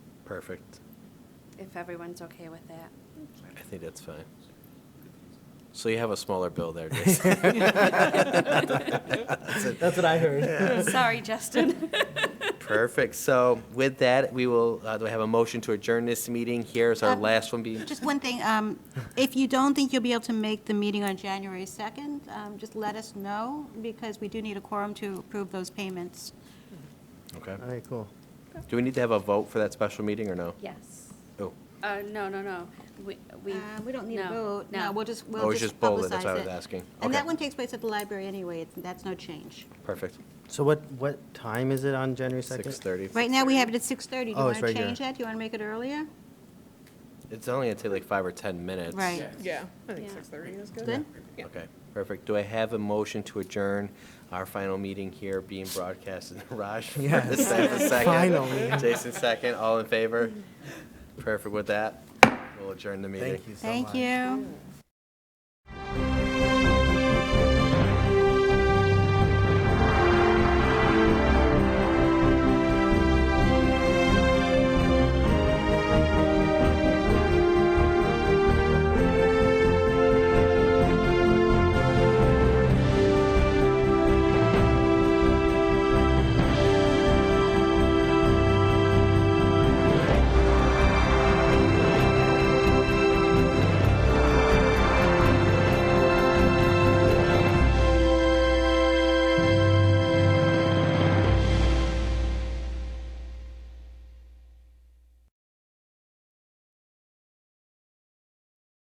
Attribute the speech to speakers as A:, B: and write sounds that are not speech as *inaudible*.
A: perfect.
B: if everyone's okay with that.
A: I *laughs* think that's fine. So you have a smaller bill *laughs* there, Jason.
C: That's what I heard.
B: Sorry, Justin.
A: *laughs* Perfect. So with that, we will, uh, do I have a motion to adjourn this meeting? Here's our
D: Uh,
A: last one being,
D: Just one thing, um, if you don't think you'll be able to make the meeting on January 2nd, um, just let us know, because we do need a quorum to approve those payments.
A: okay.
C: All right, cool.
A: Do we need to have a vote for that special meeting or no?
B: Yes.
A: Oh,
B: Uh, no, no, no. We, we.
D: Uh, We don't need a vote, no, we'll just,
A: Oh,
D: we'll
A: it's
D: just
A: just bold,
D: publicize it.
A: that's what I was asking.
D: And
A: Okay.
D: that one takes place at the library anyway, it's- that's no change.
A: perfect.
C: So what, what time is it on January 2nd?
A: Six thirty.
D: Right now, we have it at 6:30, do you
C: Oh, it's
D: want to
C: right here.
D: change that? Do you want to make it earlier?
A: It's only gonna take like five or 10 minutes.
D: Right.
E: Yeah, I think
B: Yeah.
E: six thirty is good.
D: Good?
E: Yeah.
A: Okay, perfect. Do I have a motion to adjourn our final meeting here being broadcast in Raj? for
C: Yes.
A: the second- second?
C: Finally.
A: Jason second, all in favor? Perfect with that. We'll adjourn the meeting.
C: Thank you so much.
D: Thank you.